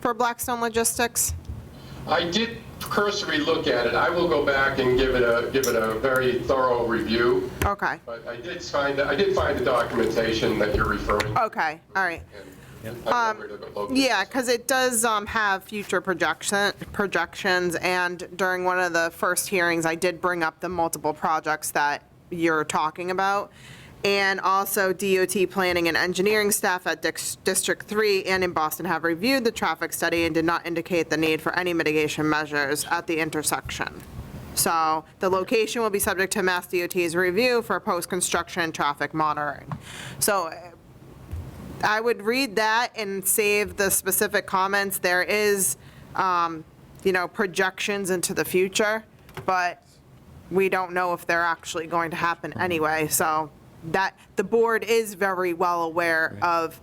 for Blackstone Logistics? I did cursory look at it. I will go back and give it a, give it a very thorough review, Okay, but I did find, I did find the documentation that you're referring to. okay, all right. and I know where to go look. Yeah, because it does um, have future projection, projections, and during one of the first hearings, I did bring up the multiple projects that you're talking about, and also DOT planning and engineering staff at Dix- District 3 and in Boston have reviewed the traffic study and did not indicate the need for any mitigation measures at the intersection. So the location will be subject to Mass DOT's review for post-construction traffic monitoring. So uh, I would read that and save the specific comments. There is, um, you know, projections into the future, but we don't know if they're actually going to happen anyway. So that, the board is very well aware of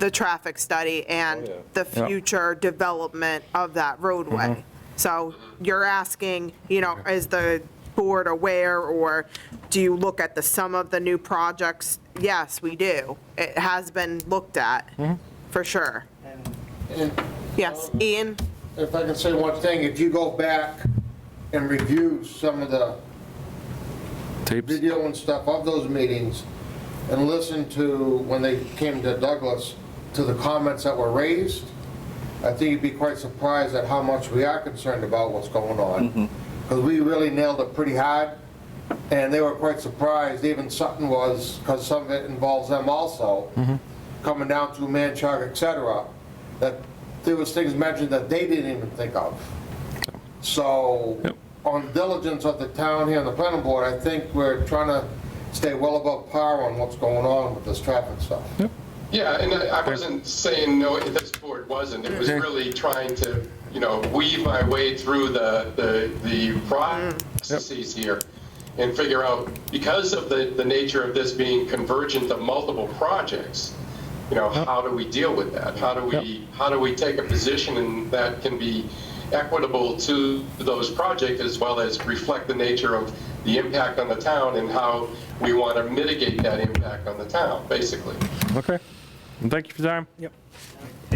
the traffic study and the Yeah. future development of that roadway. So you're asking, you know, is the board aware, or do you look at the sum of the new projects? Yes, we do. It has been looked at, for sure. Yes, Ian? If I can say one thing, if you go back and review some of the Tapes? video and stuff of those meetings and listen to, when they came to Douglas, to the comments that were raised, I think you'd be quite surprised at how much we are concerned about what's going on. Because we really nailed it pretty hard, and they were quite surprised, even Sutton was, because some of it involves them Mm-hmm. also, coming down through Manchog, et cetera, that there was things mentioned that they didn't even think of. So, Yep. on diligence of the town here and the planning board, I think we're trying to stay well above par on what's going on with this traffic stuff. Yeah, and I I wasn't saying, no, this board wasn't. It was really trying to, you know, weave my way through the, the, the processes here and figure out, because of the, the nature of this being convergent of multiple projects, you know, how do we deal with that? How do we, how do we take a position and that can be equitable to those projects as well as reflect the nature of the impact on the town and how we want to mitigate that impact on the town, basically. Okay. And thank you for your time.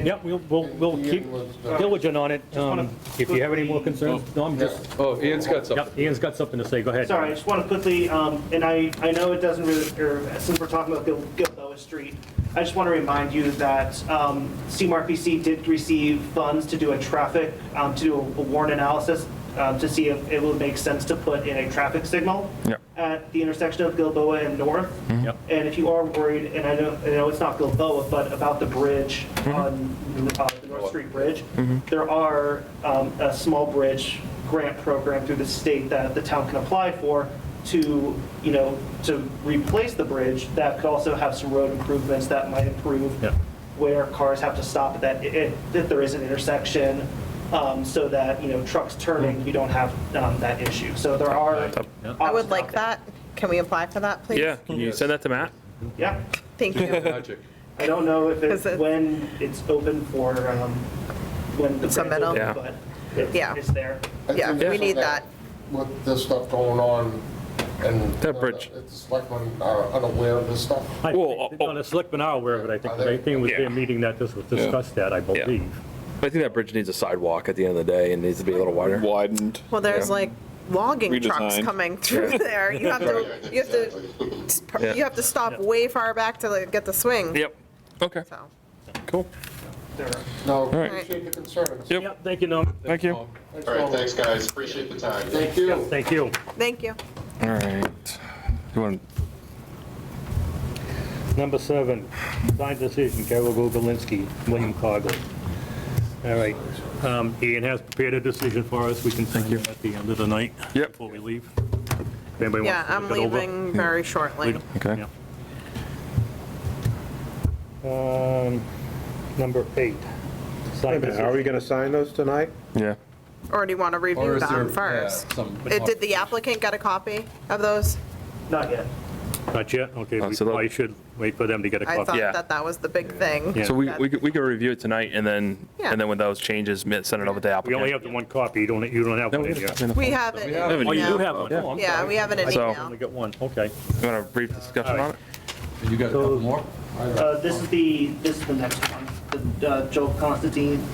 Yeah, we'll, we'll, we'll keep diligent on it. Um, If you have any more concerns, no, I'm just, Oh, Ian's got something. yep, Ian's got something to say, go ahead. Sorry, I just want to quickly, um, and I, I know it doesn't really, or since we're talking about Gil- Gilboa Street, I just want to remind you that um, CMRPC did receive funds to do a traffic, um, to do a warrant analysis um, to see if it would make sense to put in a traffic signal Yeah. at the intersection of Gilboa and North. Yep. Mm-hmm. And if you are worried, and I know, I know it's not Gilboa, but about the bridge on uh, the North Street Bridge, there are um, a small bridge grant program through the state that the town can apply for to, you know, to replace the bridge that could also have some road improvements that might improve Yeah. where cars have to stop at that, i- i- if there is an intersection, um, so that, you know, trucks turning, you don't have um, that issue. So there are. I would options out like there. that. Can we apply for that, please? Yeah, can you send that to Matt? Yeah. Thank you. Logic. I don't know if Is it- it's, when it's open for, um, when the grant's Submittal? Yeah. open, but it- Yeah. it's there. I think Yeah, we this is need that. With this stuff going on and. That bridge. It's like when are unaware of this stuff. I Well, think, on the selectmen are aware of it, I think, I think it was Oh, Yeah. their meeting that this was discussed that, I believe. I think that bridge needs a sidewalk at the end of the day and needs to be a little wider. Widened. Well, there's like logging trucks Redesigned. coming through there. You have to, you have Yeah. to, you have to stop way far back to like, get the swing. Yep. Okay, So, cool. There are- No, right. appreciate the concerns. Yep. Yeah, thank you, Norm, Thank you. All right, thanks, guys. Appreciate the time. Thank you. thank you. thank you. All right. You want, Number seven, signed decision, Carol Gogolinski, William Coggle. All right, um, Ian has prepared a decision for us, we can sign it at the end of the night. Yep. Before we leave. If anybody Yeah, wants to I'm look it over. leaving very shortly. Okay. Yeah. Um, Number eight. Wait a minute, Are we going to sign those tonight? yeah. Or do you want to Or review is there, them yeah, first? some, Uh, Did the applicant get a copy of those? Not yet. Not yet? Okay, Oh, we so that- probably should wait for them to get a I copy. thought Yeah. that that was the big thing. Yeah. So we, we could, we could review it tonight and then, Yeah. and then with those changes, mi- send it over to the We applicant. only have the one copy, you don't, you don't have No, one we in here. got it. We have it. have it. Oh, you now. do have one? Oh, I'm Yeah, sorry. we have it in So- I email. only got one, okay. You want a brief discussion on it? you got a couple more? Uh, This is the, this is the next one, the uh, Joe Constantine